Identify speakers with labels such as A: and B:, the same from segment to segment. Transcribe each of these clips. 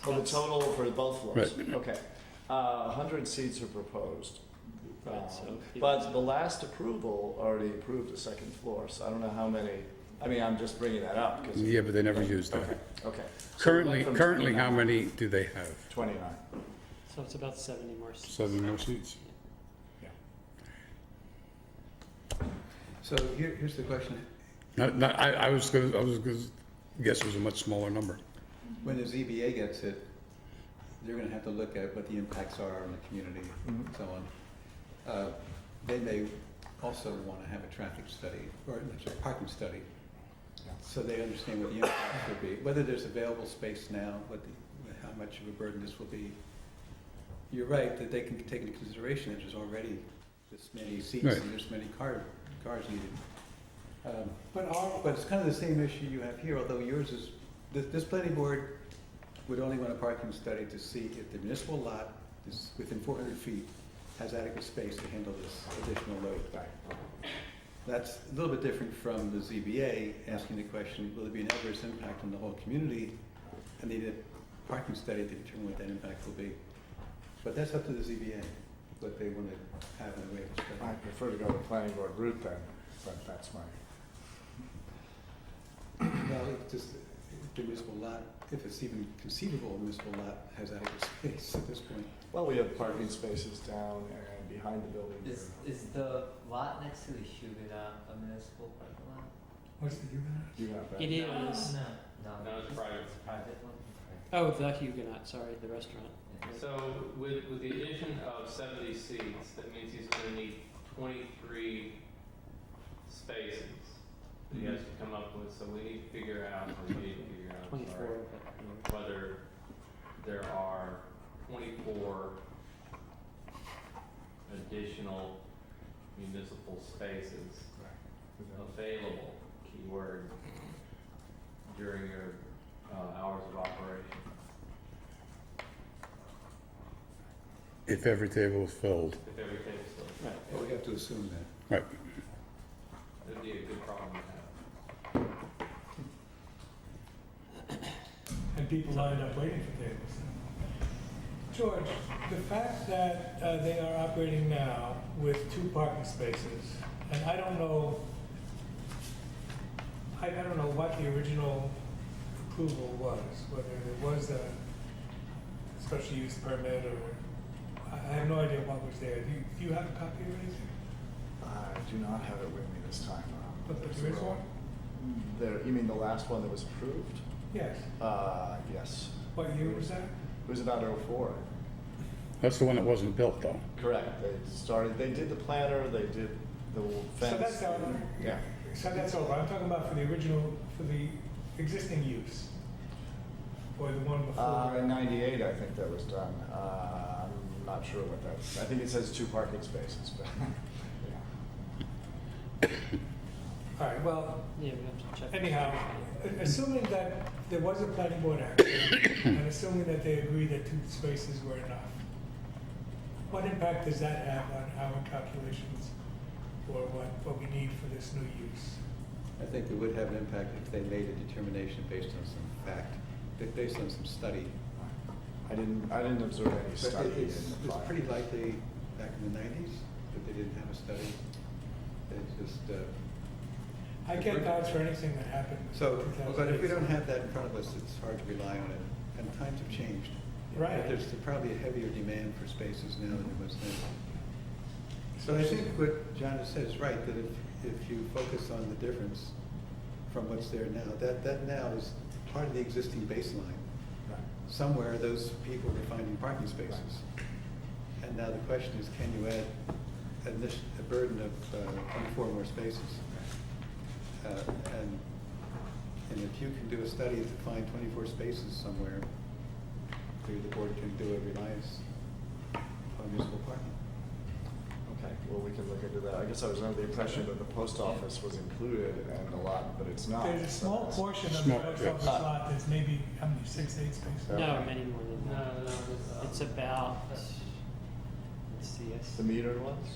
A: For the total, for both floors?
B: Right.
A: Okay. Uh, 100 seats are proposed. Um,
C: Right, so you-
A: But the last approval already approved a second floor, so I don't know how many, I mean, I'm just bringing that up, because,
B: Yeah, but they never used that.
A: okay. So we
B: Currently,
A: went from
B: currently, how
A: 29
B: many do they have?
A: 29.
C: So it's about seventy more seats.
B: Seven more seats?
D: So here, here's the question.
B: No, no, I, I was gonna, I was gonna guess it was a much smaller number.
D: When the ZBA gets it, they're gonna have to look at what the impacts are on the community and so on. Uh, They may also wanna have a traffic study, or I'm sorry, parking study.
A: Yeah.
D: So they understand what the impacts would be, whether there's available space now, what the, how much of a burden this will be. You're right, that they can take into consideration that there's already this many seats
B: Right.
D: and this many car, cars needed. Um, But all, but it's kind of the same issue you have here, although yours is, this, this planning board would only want a parking study to see if the municipal lot is within four hundred feet, has adequate space to handle this additional load. That's a little bit different from the ZBA asking the question, will there be an adverse impact on the whole community? And need a parking study to determine what that impact will be. But that's up to the ZBA, what they want to have in the way of a
A: I
D: study.
A: prefer to go the planning board route then, but that's my,
D: Well, it's just, if the municipal lot, if it's even conceivable, a municipal lot has adequate space at this point.
A: well, we have parking spaces down and behind the building. here.
E: Is, is the lot next to the Huguenot a municipal parking lot?
D: What's the, you
A: You have that.
C: It is,
E: No.
F: No, it's private.
E: It's a private one?
C: oh, the Huguenot, sorry, the restaurant.
E: Yeah.
F: So with, with the addition of seventy seats, that means he's gonna need twenty-three spaces. That he has to come up with, so we need to figure out, or we need to figure out, I'm
C: Twenty-four,
F: sorry,
C: but
F: whether there are twenty-four additional municipal spaces available, keyword, during your, uh, hours of operation.
B: If every table was filled,
F: If everything's still,
D: Well, we have to assume that.
B: right,
F: that'd be a good problem to have.
G: and people lined up waiting for tables. George, the fact that uh, they are operating now with two parking spaces, and I don't know, I, I don't know what the original approval was, whether it was a special use permit or, I I have no idea what was there. Do you, do you have a copy of anything?
A: I Uh, do not have it with me this time around.
G: But there is one?
A: There, you mean the last one that was approved?
G: Yes.
A: Uh, yes.
G: What year was that?
A: It was about '04.
B: that's the one that wasn't built though.
A: Correct. They started, they did the planter, they did the fence.
G: So that's our,
A: Yeah.
G: so that's over, I'm talking about for the original, for the existing use, or the one
A: Uh, in
G: before.
A: ninety-eight, I think that was done. Uh, I'm not sure what that's, I think it says two parking spaces, but, yeah.
G: All right, well,
C: yeah, we have to check.
G: anyhow, a- assuming that there was a planning board action, and assuming that they agreed that two spaces were enough, what impact does that have on our calculations, or what, what we need for this new use?
D: I think it would have an impact if they made a determination based on some fact, ba- based on some study.
A: I didn't, I didn't observe any
D: But
A: study
D: it-
A: in the
D: it's, it's
A: file.
D: pretty likely back in the nineties that they didn't have a study. It's just, uh,
G: I can't vouch for anything that happened. in
D: so, but if we
G: 2008.
D: don't have that in front of us, it's hard to rely on it. And times have changed.
G: Right.
D: There's probably a heavier demand for spaces now than there was then. So I think what John has said is right, that if, if you focus on the difference from what's there now, that, that now is part of the existing baseline.
A: Right.
D: Somewhere, those people were finding parking spaces. And now the question is, can you add an addition- a burden of uh, 24 more spaces? Uh, And, and if you can do a study to find 24 spaces somewhere, maybe the board can do a reliance on municipal parking.
A: Okay, well, we can look into that. I guess I was under the impression that the post office was included and a lot, but it's not.
G: There's a
A: so
G: small
A: it's-
G: portion of the
B: Small,
G: post
B: yeah.
G: office lot that's maybe, how many, six, eight spaces?
C: No, many more than
F: No,
C: that.
F: no, no.
C: It's about, let's see,
A: The
C: yes.
A: metered ones?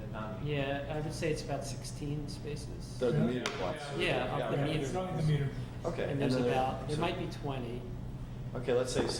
E: The non-
C: Yeah, I would say it's about sixteen spaces.
A: The
G: Yeah.
A: metered ones.
C: Yeah, of the
G: Yeah,
C: meter.
G: It's not in the meter.
A: Okay.
C: And there's
A: then-
C: about, there
A: so-
C: might be twenty.
A: Okay, let's say